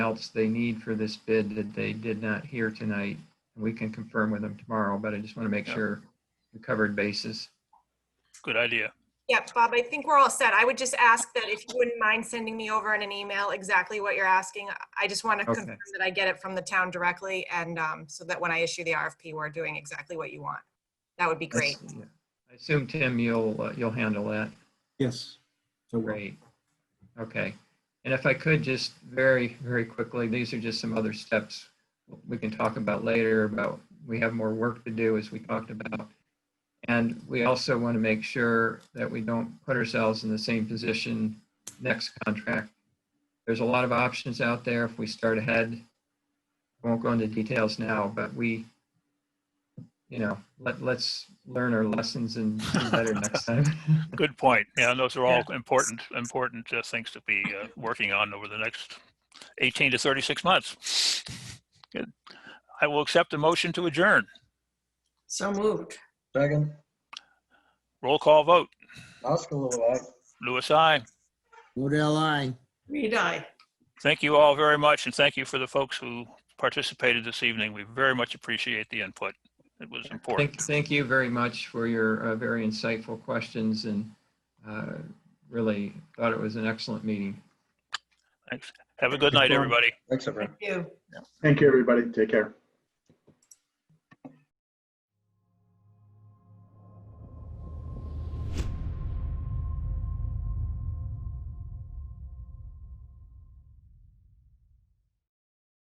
else they need for this bid that they did not hear tonight. We can confirm with them tomorrow, but I just want to make Yeah. sure we covered bases. Good idea. Yeah, Bob, I think we're all set. I would just ask that if you wouldn't mind sending me over in an email exactly what you're asking. I just want to Okay. confirm that I get it from the town directly and um, so that when I issue the RFP, we're doing exactly what you want. That would be great. That's- yeah. I assume, Tim, you'll, uh, you'll handle that. Yes. So we'll- Great. Okay. And if I could just very, very quickly, these are just some other steps we can talk about later about, we have more work to do as we talked about. And we also want to make sure that we don't put ourselves in the same position next contract. There's a lot of options out there if we start ahead. I won't go into details now, but we, you know, let, let's learn our lessons and do better next time. Good point. Yeah, those are all important, important uh, things to be uh, working on over the next 18 to 36 months. Good. I will accept the motion to adjourn. So moved. Second, Roll call vote. Oscar Lilloye. Louis, I. Modell, aye. Reed, aye. Thank you all very much, and thank you for the folks who participated this evening. We very much appreciate the input. It was important. Thank, thank you very much for your uh, very insightful questions and uh, really thought it was an excellent meeting. Thanks. Have a good night, everybody. Thanks, everyone. Thank you. Thank you, everybody. Take care.